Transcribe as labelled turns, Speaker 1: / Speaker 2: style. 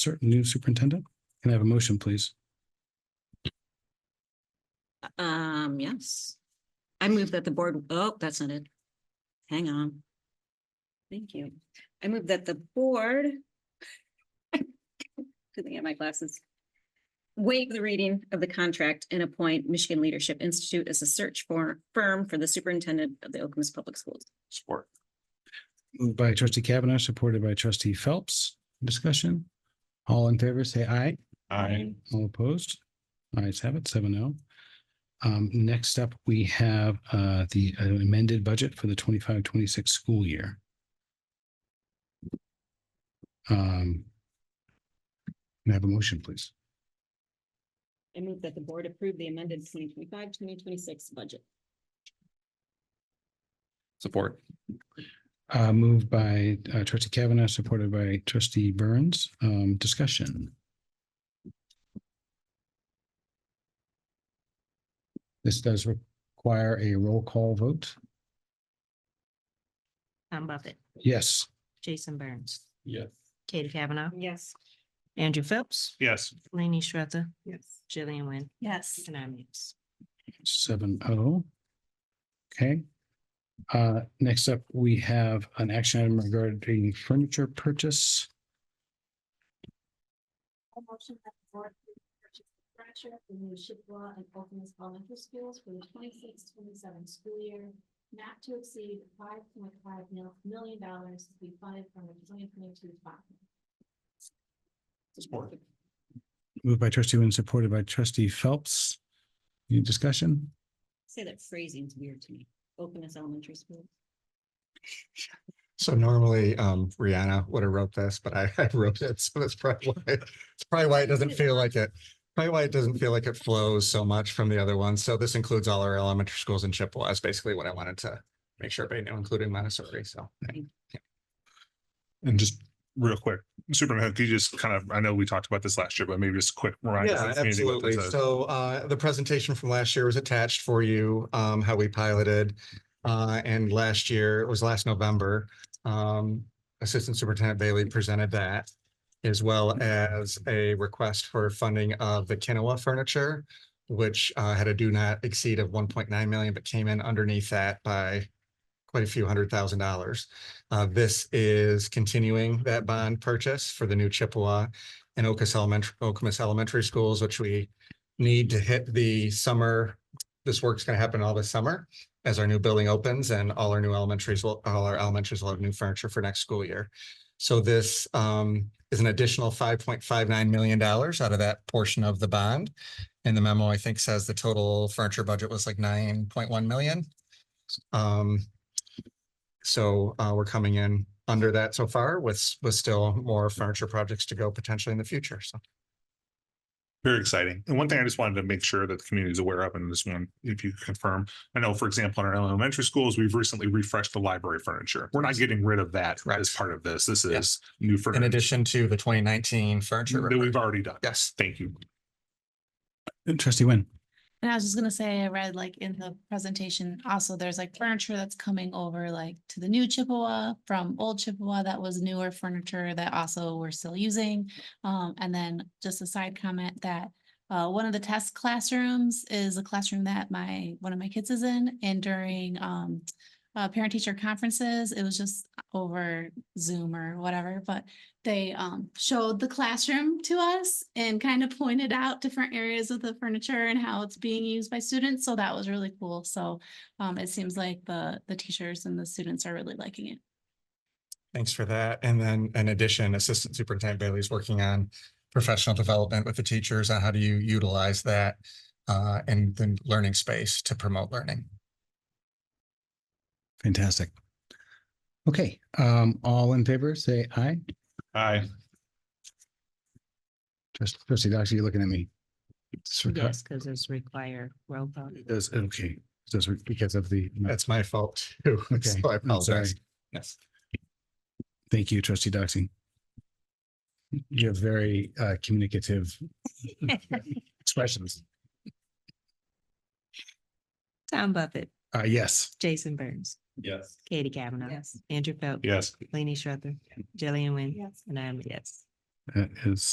Speaker 1: certain new superintendent. Can I have a motion, please?
Speaker 2: Um, yes. I move that the board, oh, that's not it. Hang on. Thank you. I move that the board. Good thing I have my glasses. Waive the reading of the contract and appoint Michigan Leadership Institute as a search for firm for the superintendent of the Oklamas Public Schools.
Speaker 3: Support.
Speaker 1: Moved by trustee Kavanaugh, supported by trustee Phelps. Discussion. All in favor, say aye.
Speaker 3: I
Speaker 1: All opposed? Ayes have it, seven oh. Um, next up, we have, uh, the amended budget for the 25-26 school year. Um. Can I have a motion, please?
Speaker 2: I move that the board approve the amended 2025-2026 budget.
Speaker 3: Support.
Speaker 1: Uh, moved by uh, trustee Kavanaugh, supported by trustee Burns. Um, discussion. This does require a roll call vote.
Speaker 4: Tom Buffett,
Speaker 1: Yes.
Speaker 4: Jason Burns,
Speaker 3: Yes.
Speaker 4: Katie Kavanaugh,
Speaker 2: Yes.
Speaker 4: Andrew Phelps,
Speaker 3: Yes.
Speaker 4: Laney Schroeder,
Speaker 2: Yes.
Speaker 4: Jillian Wynn,
Speaker 2: Yes.
Speaker 4: and I'm yes.
Speaker 1: seven oh. Okay. Uh, next up, we have an action item regarding furniture purchase.
Speaker 5: A motion that the board approve the purchase of furniture for the new Chippewa and Oakland's elementary schools for the 26-27 school year, not to exceed five point five million dollars to be funded from the twenty twenty-two fund.
Speaker 3: Support.
Speaker 1: Moved by trustee Wynn, supported by trustee Phelps. Any discussion?
Speaker 2: Say that phrasing's weird to me. Open elementary school.
Speaker 6: So normally um Rihanna would have wrote this, but I I wrote it, so that's probably why, it's probably why it doesn't feel like it. Probably why it doesn't feel like it flows so much from the other ones. So this includes all our elementary schools in Chippewa. That's basically what I wanted to make sure everybody knew, including Montessori, so.
Speaker 7: And just real quick, Superintendent, could you just kind of, I know we talked about this last year, but maybe just quick reminder.
Speaker 6: Yeah, absolutely. So uh, the presentation from last year was attached for you, um, how we piloted. Uh, and last year, it was last November, um, Assistant Superintendent Bailey presented that as well as a request for funding of the Kenowa furniture, which uh, had a do not exceed of one point nine million, but came in underneath that by quite a few hundred thousand dollars. Uh, this is continuing that bond purchase for the new Chippewa and Okus Elementary, Okemos Elementary Schools, which we need to hit the summer. This work's gonna happen all this summer as our new building opens and all our new elementaries will, all our elementaries will have new furniture for next school year. So this um is an additional five point five nine million dollars out of that portion of the bond. And the memo, I think, says the total furniture budget was like nine point one million. Um, so uh, we're coming in under that so far with, with still more furniture projects to go potentially in the future. So
Speaker 7: Very exciting. And one thing I just wanted to make sure that the community is aware of, and this one, if you confirm, I know, for example, in our elementary schools, we've recently refreshed the library furniture. We're not getting rid of that
Speaker 6: Correct.
Speaker 7: as part of this. This
Speaker 6: Yeah.
Speaker 7: is new
Speaker 6: in
Speaker 7: furniture
Speaker 6: addition to the twenty nineteen furniture.
Speaker 7: that we've already done.
Speaker 6: Yes,
Speaker 7: Thank you.
Speaker 1: Trustee Wynn.
Speaker 8: And I was just gonna say, I read like in the presentation, also there's like furniture that's coming over like to the new Chippewa from old Chippewa that was newer furniture that also we're still using. Um, and then just a side comment that uh, one of the test classrooms is a classroom that my, one of my kids is in and during um uh, parent teacher conferences, it was just over Zoom or whatever, but they um showed the classroom to us and kind of pointed out different areas of the furniture and how it's being used by students. So that was really cool. So um it seems like the the teachers and the students are really liking it.
Speaker 6: thanks for that. And then in addition, Assistant Superintendent Bailey is working on professional development with the teachers on how do you utilize that uh, in the learning space to promote learning.
Speaker 1: Fantastic. Okay, um, all in favor, say aye.
Speaker 7: Aye.
Speaker 1: Trust- Trustee Doxy, you're looking at me. It's requ-
Speaker 4: Yes, because it's require roll call.
Speaker 1: It does, okay, It does re- because of the,
Speaker 6: That's my fault too.
Speaker 1: okay,
Speaker 6: So I
Speaker 1: I'm sorry.
Speaker 6: apologize. Yes.
Speaker 1: Thank you, trustee Doxy. You're very uh, communicative expressions.
Speaker 4: Tom Buffett,
Speaker 1: Uh, yes.
Speaker 4: Jason Burns,
Speaker 3: Yes.
Speaker 4: Katie Kavanaugh,
Speaker 2: Yes.
Speaker 4: Andrew Phelps,
Speaker 7: Yes.
Speaker 4: Laney Schroeder, Jillian Wynn,
Speaker 5: Yes.
Speaker 4: and I'm yes.
Speaker 1: That is